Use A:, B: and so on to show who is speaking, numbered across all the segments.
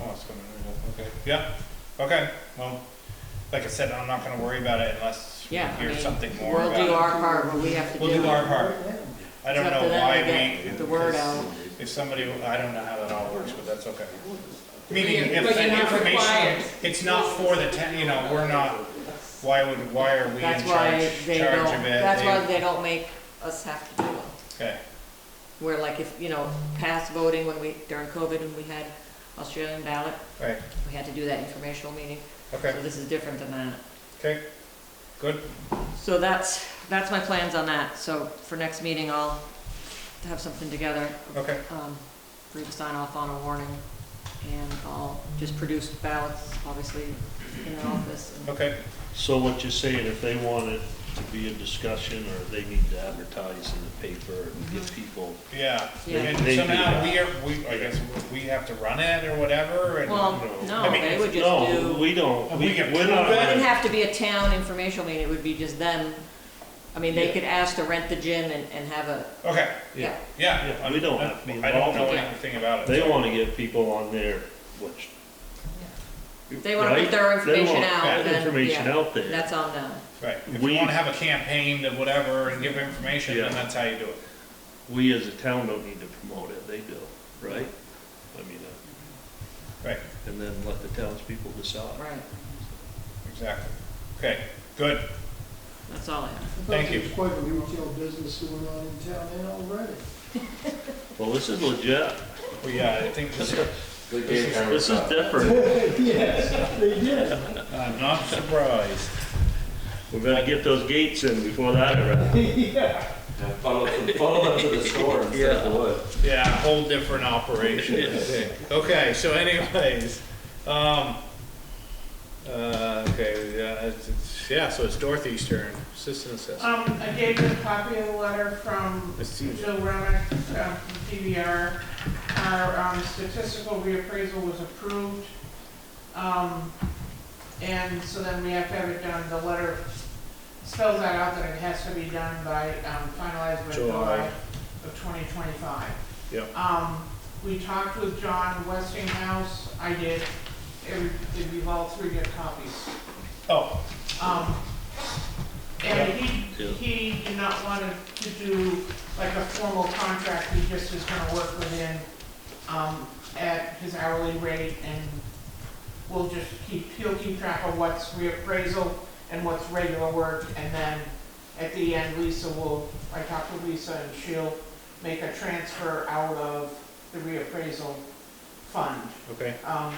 A: Oh, it's gonna, okay, yeah, okay, well, like I said, I'm not gonna worry about it unless we
B: Yeah, I
A: hear
B: mean,
A: something more
B: We'll do
A: about it.
B: our part, but we have to do.
A: We'll do our part. I don't
B: It's up
A: know
B: to them to
A: why
B: get
A: we.
B: the word out.
A: If somebody, I don't know how that all works, but that's okay.
B: you're-
A: Meaning,
B: but
A: if
B: you're
A: the
B: not required.
A: information, it's not for the town, you know, we're not, why would, why are we in charge,
B: That's
A: charge
B: why
A: of it?
B: they don't, that's
A: They-
B: why they don't make us have to do them.
A: Okay,
B: Where like if, you know, past voting when we, during COVID, when we had Australian ballot,
A: right,
B: we had to do that informational meeting.
A: okay,
B: So this is different than that.
A: okay, good,
B: So that's, that's my plans on that. So for next meeting, I'll have something together,
A: okay,
B: um, for you to sign off on a warning. And I'll just produce ballots, obviously, in the office and
A: okay,
C: So what you're saying, if they want it to be a discussion, or they need to advertise in the paper and
B: Mm-hmm.
C: get people,
A: yeah.
B: Yeah.
A: And
C: They do
A: so now
C: that.
A: we are, we, I guess, we have to run it or whatever, and.
B: Well,
A: I
B: no,
A: mean,
B: they would just do,
C: no, we don't,
A: And
C: we,
A: we can
C: we're
A: prove it.
C: not.
B: it wouldn't
C: gonna-
B: have to be a town informational meeting, it would be just them. I mean, they could ask to rent the gym and, and have a,
A: Okay,
B: yeah,
A: yeah,
C: Yeah,
A: I'm-
C: we don't have to be
A: I don't know
C: involved.
B: Yeah.
A: anything about it.
C: They
A: so-
C: wanna get people on there, which.
B: They wanna put
C: Right?
B: their information
C: They want
B: out,
C: that
B: then,
C: Information
B: yeah.
C: out there.
B: that's on them.
A: Right, if you
C: We-
A: wanna have a campaign to whatever and give information, then
C: Yeah.
A: that's how you do it.
C: We as a town don't need to promote it, they do, right? I mean, uh,
A: Right.
C: and then let the townspeople decide.
B: Right,
A: Exactly. Okay, good.
B: that's all I have.
A: Thank you.
D: There's Quite a retail business going on in town now already.
C: Well, this is legit,
A: Well, yeah, uh, I think this,
E: Good
C: this
E: game,
C: is,
E: Cameron.
C: this is different,
D: Yes, they did.
A: I'm uh, not surprised.
C: we're gonna get those gates in before that arrives.
D: Yeah.
E: Yeah, Funnel funnel them to the store instead of the wood.
A: Yeah, whole different operation. Okay, so anyways, um, uh, okay, yeah, it's, it's, yeah, so it's Dorothy's turn, assistant assessor.
F: Um, I gave you a copy of the letter from
A: Let's see.
F: Jill Remick, uh, from DVR. Our, um, statistical reappraisal was approved. Um, and so then we have to have it done, the letter spells that out that it has to be done by, um, finalized by
A: July.
F: July of twenty twenty-five.
A: Yep.
F: Um, we talked with John Westinghouse, I did, every, did we all three get copies?
A: Oh,
F: Um, and he,
C: Yeah.
F: he did not want to do like a formal contract, he just is gonna work within, um, at his hourly rate and we'll just keep, he'll keep track of what's reappraisal and what's regular work and then at the end Lisa will, I talked to Lisa and she'll make a transfer out of the reappraisal fund.
A: okay,
F: Um,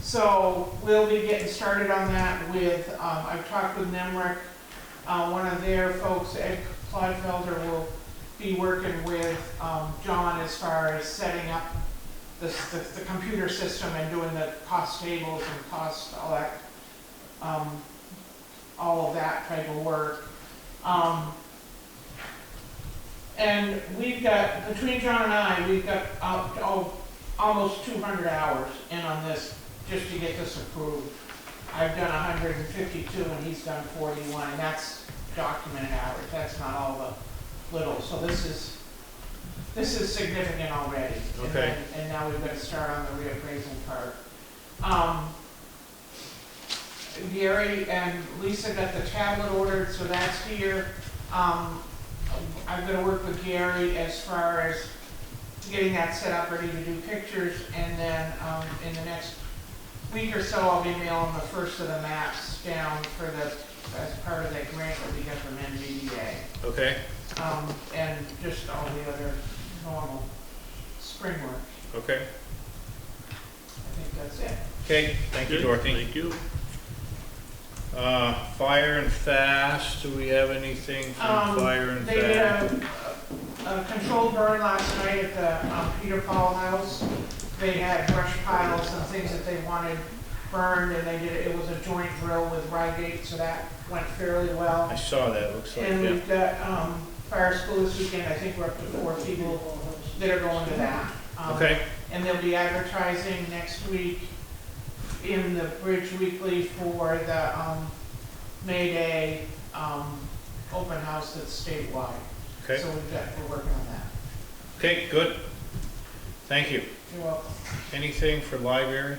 F: so we'll be getting started on that with, um, I've talked with Nemrick, uh, one of their folks, Ed Clodfelder, will be working with, um, John as far as setting up the, s- the, the computer system and doing the cost tables and cost, all that, um, all of that type of work. Um, and we've got, between John and I, we've got, uh, oh, almost two hundred hours in on this, just to get this approved. I've done hundred and fifty-two and he's done forty-one, and that's documented hours, that's not all the little, so this is, this is significant already. And
A: Okay.
F: then- And now we've got to start on the reappraisal part. Um, Gary and Lisa got the tablet ordered, so that's here. Um, I'm gonna work with Gary as far as getting that set up, ready to do pictures, and then, um, in the next week or so, I'll be mailing the first of the maps down for the, as part of that grant that we got from NVDA.
A: okay,
F: Um, and just all the other normal spring work.
A: okay.
F: I think that's it.
A: Okay, thank you,
C: Good,
A: Dorothy.
C: Thank you.
A: Uh, fire and fast, do we have anything from
F: Um,
A: fire and
F: They did
A: fast?
F: a, a controlled burn last night at the um, Peter Paul House. They had brush piles and things that they wanted burned, and they did, it was a joint drill with Rygate, so that went fairly well.
A: I saw that, looks like,
F: uh, And
A: yeah,
F: we've got, um, fire school this weekend, I think we're up to four people that are going to that. Um,
A: okay,
F: And they'll be advertising next week in the Bridge Weekly for the, um, May Day, um, open house that's statewide.
A: okay,
F: So we've got, we're working on that.
A: okay, good. Thank you.
F: You're welcome.
A: Anything for library?